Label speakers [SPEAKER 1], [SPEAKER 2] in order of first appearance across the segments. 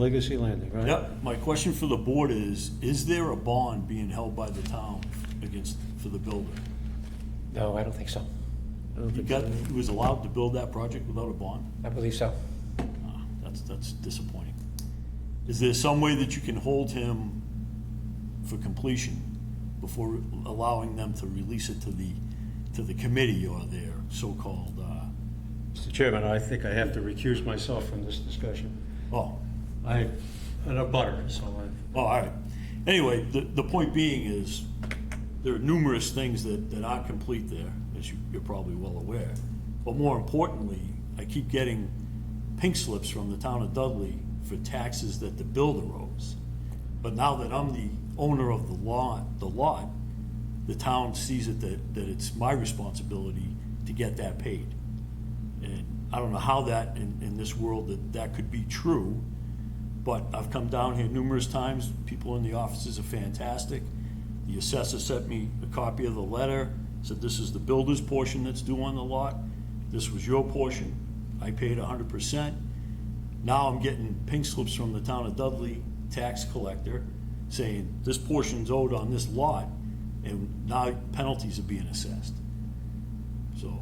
[SPEAKER 1] Legacy Landing, right?
[SPEAKER 2] Yep, my question for the board is, is there a bond being held by the town against, for the builder?
[SPEAKER 3] No, I don't think so.
[SPEAKER 1] I don't
[SPEAKER 2] He
[SPEAKER 1] think
[SPEAKER 2] got,
[SPEAKER 1] so.
[SPEAKER 2] he was allowed to build that project without a bond?
[SPEAKER 3] I believe so.
[SPEAKER 2] Ah, That's, that's disappointing. Is there some way that you can hold him for completion before allowing them to release it to the, to the committee or their so-called, uh,
[SPEAKER 1] Mr. Chairman, I think I have to recuse myself from this discussion.
[SPEAKER 2] oh,
[SPEAKER 1] I, and a butter, so I,
[SPEAKER 2] Oh, all right. Anyway, the, the point being is, there are numerous things that, that aren't complete there, as you, you're probably well aware. But more importantly, I keep getting pink slips from the town of Dudley for taxes that the builder owes. But now that I'm the owner of the lot, the lot, the town sees it that, that it's my responsibility to get that paid. And I don't know how that, in, in this world, that that could be true, but I've come down here numerous times, people in the offices are fantastic. The assessor sent me a copy of the letter, said this is the builder's portion that's due on the lot, this was your portion, I paid hundred percent. Now I'm getting pink slips from the town of Dudley tax collector saying this portion's owed on this lot, and now penalties are being assessed. So,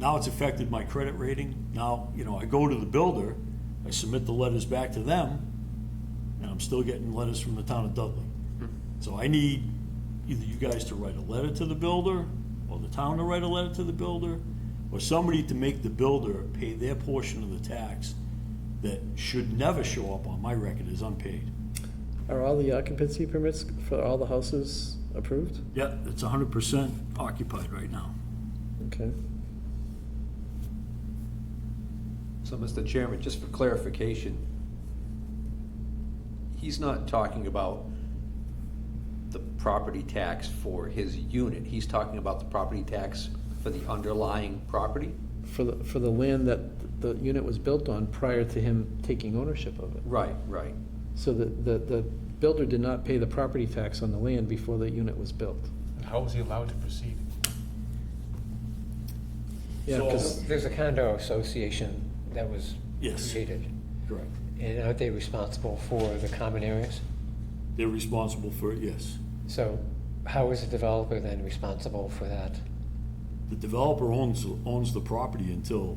[SPEAKER 2] now it's affected my credit rating. Now, you know, I go to the builder, I submit the letters back to them, and I'm still getting letters from the town of Dudley. So I need either you guys to write a letter to the builder, or the town to write a letter to the builder, or somebody to make the builder pay their portion of the tax that should never show up on my record as unpaid.
[SPEAKER 4] Are all the occupancy permits for all the houses approved?
[SPEAKER 2] Yeah, it's hundred percent occupied right now.
[SPEAKER 4] Okay.
[SPEAKER 5] So, Mr. Chairman, just for clarification, he's not talking about the property tax for his unit. He's talking about the property tax for the underlying property?
[SPEAKER 4] For the, for the land that the unit was built on prior to him taking ownership of it.
[SPEAKER 5] Right, right.
[SPEAKER 4] So the, the, the builder did not pay the property tax on the land before the unit was built.
[SPEAKER 6] How was he allowed to proceed?
[SPEAKER 4] Yeah,
[SPEAKER 2] So-
[SPEAKER 4] because,
[SPEAKER 3] There's a condo association that was
[SPEAKER 2] Yes.
[SPEAKER 3] created,
[SPEAKER 2] Correct.
[SPEAKER 3] and aren't they responsible for the common areas?
[SPEAKER 2] They're responsible for it, yes.
[SPEAKER 3] So how is the developer then responsible for that?
[SPEAKER 2] The developer owns, owns the property until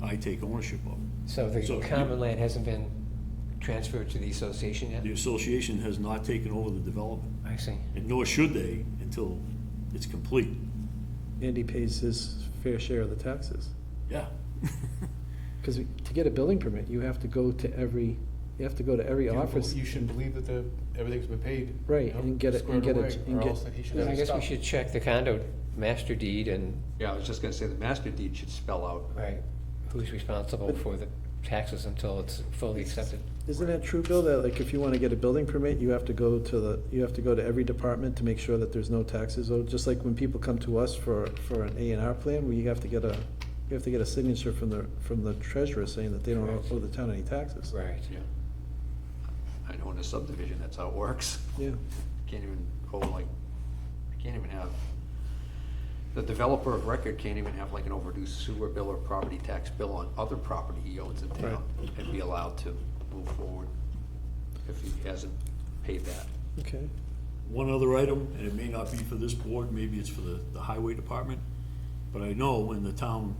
[SPEAKER 2] I take ownership of it.
[SPEAKER 3] So the
[SPEAKER 2] So you-
[SPEAKER 3] common land hasn't been transferred to the association yet?
[SPEAKER 2] The association has not taken over the development,
[SPEAKER 3] I see.
[SPEAKER 2] and nor should they until it's complete.
[SPEAKER 4] Andy pays his fair share of the taxes.
[SPEAKER 2] Yeah.
[SPEAKER 4] Because to get a building permit, you have to go to every, you have to go to every
[SPEAKER 6] You know,
[SPEAKER 4] office.
[SPEAKER 6] You should believe that the, everything's been paid.
[SPEAKER 4] Right,
[SPEAKER 6] you know,
[SPEAKER 4] and get it- and
[SPEAKER 6] squared
[SPEAKER 4] get it-
[SPEAKER 6] away,
[SPEAKER 4] and
[SPEAKER 6] or
[SPEAKER 4] get-
[SPEAKER 6] else that he should
[SPEAKER 3] Then
[SPEAKER 6] have
[SPEAKER 3] I
[SPEAKER 6] his
[SPEAKER 3] guess we
[SPEAKER 6] stuff.
[SPEAKER 3] should check the condo master deed and,
[SPEAKER 5] Yeah, I was just gonna say, the master deed should spell out.
[SPEAKER 3] right, who's responsible for the taxes until it's fully accepted?
[SPEAKER 4] Isn't that true, Bill, that like if you want to get a building permit, you have to go to the, you have to go to every department to make sure that there's no taxes owed? Just like when people come to us for, for an A and R plan, where you have to get a, you have to get a signature from the, from the treasurer saying that they don't owe the town any taxes.
[SPEAKER 3] Right.
[SPEAKER 5] Yeah. I know in a subdivision, that's how it works.
[SPEAKER 4] Yeah,
[SPEAKER 5] Can't even, oh, like, I can't even have, the developer of record can't even have like an overdue sewer bill or property tax bill on other property he owns in town and be allowed to move forward if he hasn't paid that.
[SPEAKER 4] okay.
[SPEAKER 2] One other item, and it may not be for this board, maybe it's for the, the highway department, but I know in the town,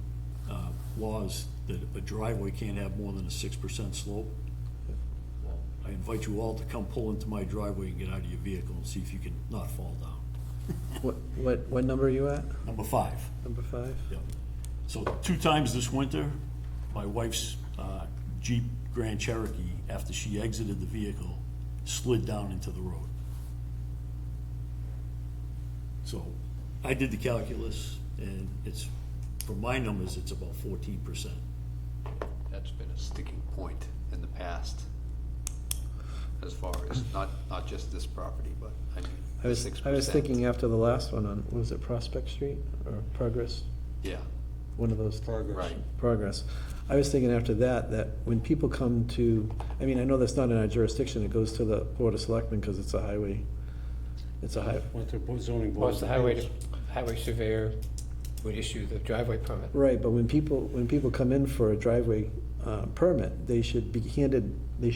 [SPEAKER 2] uh, laws that a driveway can't have more than a six percent slope. I invite you all to come pull into my driveway and get out of your vehicle and see if you can not fall down.
[SPEAKER 4] What, what, what number are you at?
[SPEAKER 2] Number five.
[SPEAKER 4] Number five?
[SPEAKER 2] Yep. So two times this winter, my wife's uh, Jeep Grand Cherokee, after she exited the vehicle, slid down into the road. So I did the calculus, and it's, for my numbers, it's about fourteen percent.
[SPEAKER 5] That's been a sticking point in the past as far as, not, not just this property, but I mean,
[SPEAKER 4] I was,
[SPEAKER 5] six percent.
[SPEAKER 4] I was thinking after the last one on, what was it Prospect Street or Progress?
[SPEAKER 5] Yeah,
[SPEAKER 4] One of those.
[SPEAKER 5] right.
[SPEAKER 4] progress. I was thinking after that, that when people come to, I mean, I know that's not in our jurisdiction, it goes to the Board of Selectmen because it's a highway. It's a high,
[SPEAKER 1] went to bo- zoning
[SPEAKER 3] Well,
[SPEAKER 1] board.
[SPEAKER 3] it's the highway, highway surveyor would issue the driveway permit.
[SPEAKER 4] right, but when people, when people come in for a driveway uh, permit, they should be handed, they